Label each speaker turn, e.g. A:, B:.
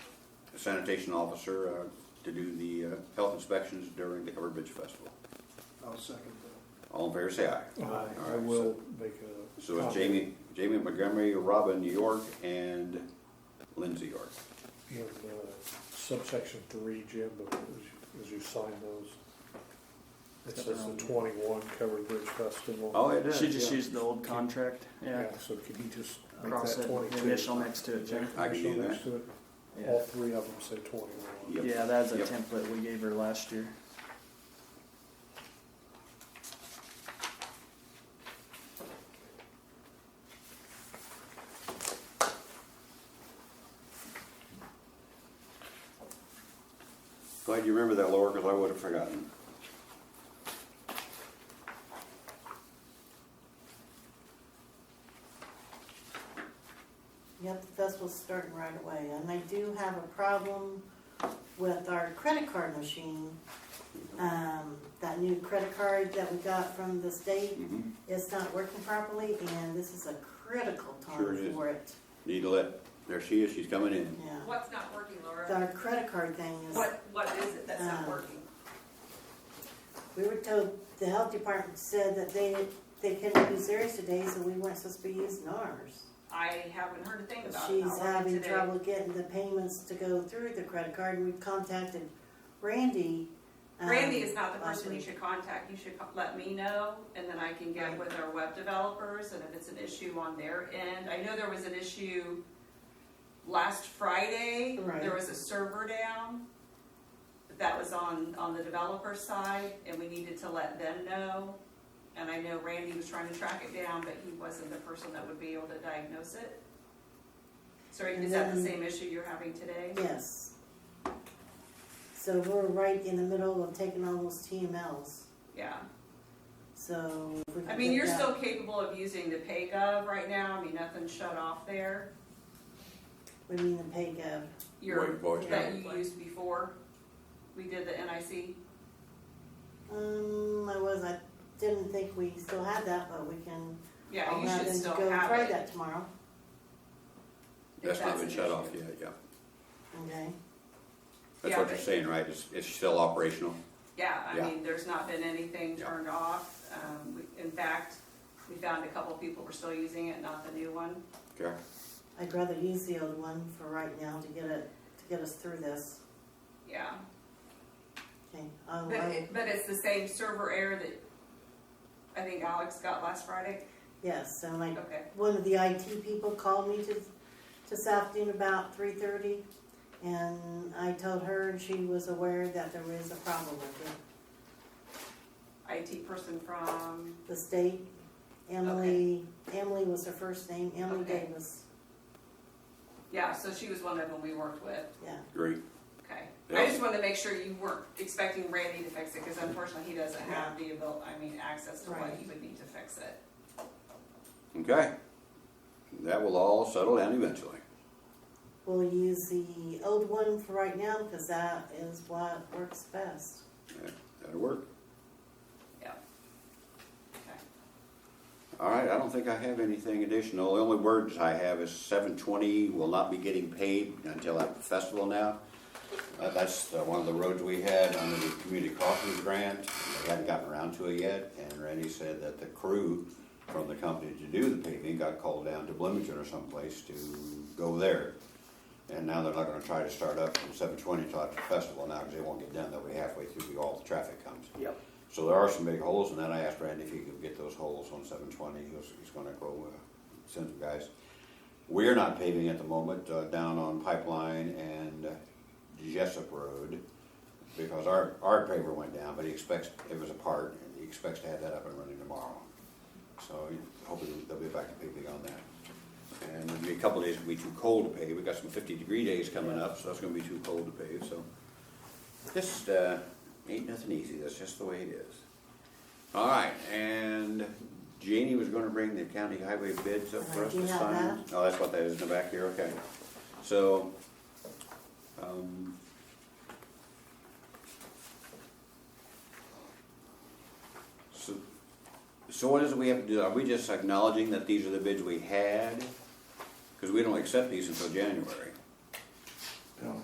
A: sanitation officer uh, to do the uh, health inspections during the Cover Bridge Festival.
B: I'll second
A: All in favor, say aye.
B: that.
A: All right,
B: Uh, I
A: so-
B: will make a.
A: So it's
B: copy.
A: Jamie, Jamie Montgomery, Robin York, and Lindsay York.
B: In uh, subsection three, Jim, but as you- as you sign those, it
C: Got
B: says
C: their
B: the
C: own.
B: twenty-one Covered Bridge Festival.
A: Oh, it is.
C: Should just
B: yeah.
C: use the old contract, yeah.
B: So could you just make
C: Cross
B: that
C: it,
B: twenty-two?
C: the initial next to it, Jim.
A: I can do
B: Initial next
A: that.
B: to it. All
C: Yeah,
B: three of them say twenty-one.
A: Yep.
C: Yeah, that's a
A: Yep.
C: template we gave her last year.
A: Glad you remember that, Laura, because I would have forgotten.
D: Yep, the festival's starting right away, and I do have a problem with our credit card machine. Um, that new credit card that we got from the state,
A: Mhm.
D: it's not working properly, and this is a critical
A: Sure it
D: time
A: is.
D: for it.
A: Need to let, there she is, she's coming in.
D: Yeah,
E: What's not working, Laura?
D: our credit card thing is,
E: What, what is it that's
D: Um,
E: not working?
D: we were told, the health department said that they, they couldn't use theirs today, so we weren't supposed to be using ours.
E: I haven't heard a thing about it
D: She's
E: not working
D: having
E: today.
D: trouble getting the payments to go through the credit card, and we've contacted Randy. um,
E: Randy is not the
D: last
E: person you
D: week.
E: should contact. You should co- let me know, and then I can get
D: Right.
E: with our web developers, and if it's an issue on their end. I know there was an issue last Friday.
D: Right.
E: There was a server down. That was on, on the developer side, and we needed to let them know. And I know Randy was trying to track it down, but he wasn't the person that would be able to diagnose it. So
D: And
E: is that the
D: then-
E: same issue you're having today?
D: Yes. So we're right in the middle of taking all those TMLs,
E: Yeah.
D: so. if we
E: I
D: can
E: mean,
D: get
E: you're
D: that-
E: still capable of using the PayGov right now, I mean, nothing's shut off there.
D: We mean the pay gov,
E: Your,
A: White voice.
E: that you used before, we did the NIC,
D: um, I was, I didn't think we still had that, but we can.
E: yeah,
D: I'll
E: you
D: have
E: should
D: them
E: still
D: Go
E: have
D: try
E: it.
D: that tomorrow,
E: if
A: That's not
E: an
A: been shut
E: issue.
A: off yet, yeah.
D: okay?
A: That's
E: Yeah,
A: what you're
E: but-
A: saying, right? It's, it's still operational?
E: Yeah, I
A: Yeah.
E: mean, there's not been anything
A: Yeah.
E: turned off, um, we- in fact, we found a couple people were still using it, not the new one.
A: Okay.
D: I'd rather use the old one for right now to get it, to get us through this,
E: Yeah,
D: okay? Um, I'll-
E: but it, but it's the same server error that I think Alex got last Friday,
D: Yes, and like,
E: okay,
D: one of the IT people called me to, this afternoon about three thirty, and I told her, and she was aware that there was a problem with it.
E: IT person from,
D: The state, Emily, Emily was her first name, Emily
E: Okay.
D: Davis,
E: yeah, so she was one of them we worked with.
D: yeah.
A: Great.
E: Okay,
A: Yeah.
E: I just wanted to make sure you weren't expecting Randy to fix it, because unfortunately, he doesn't have the ability, I mean, access to what
D: Right.
E: he would need to fix it.
A: Okay. That will all settle down eventually.
D: We'll use the old one for right now, because that is what works best.
A: That'll work.
E: Okay.
A: All right, I don't think I have anything additional. The only words I have is seven twenty will not be getting paid until at the festival now. Uh, that's uh, one of the roads we had under the community crossings grant. They hadn't gotten around to it yet, and Randy said that the crew from the company to do the paving got called down to Bloomington or someplace to go there. And now they're not gonna try to start up from seven twenty till after the festival now, because they won't get done, they'll be halfway through, all the traffic comes.
C: Yep.
A: So there are some big holes, and then I asked Randy if he could get those holes on seven twenty, he was, he's gonna go, uh, send some guys. We are not paving at the moment, uh, down on Pipeline and uh, Jessup Road, because our, our paver went down, but he expects, it was apart, and he expects to have that up and running tomorrow. So hopefully they'll be back to paving on that. And it'll be a couple days, it'll be too cold to pave, we got some fifty degree days coming up, so that's gonna be too cold to pave, so. Just, uh, ain't nothing easy, that's just the way it is. All right, and Jeannie was gonna bring the county highway bids up for us
D: Uh, Do
A: to
D: you have
A: sign. Oh, that's what that is in the back here, okay. So, um, so, so what is it we have to do? Are we just acknowledging that these are the bids we had? Because we don't accept these until January.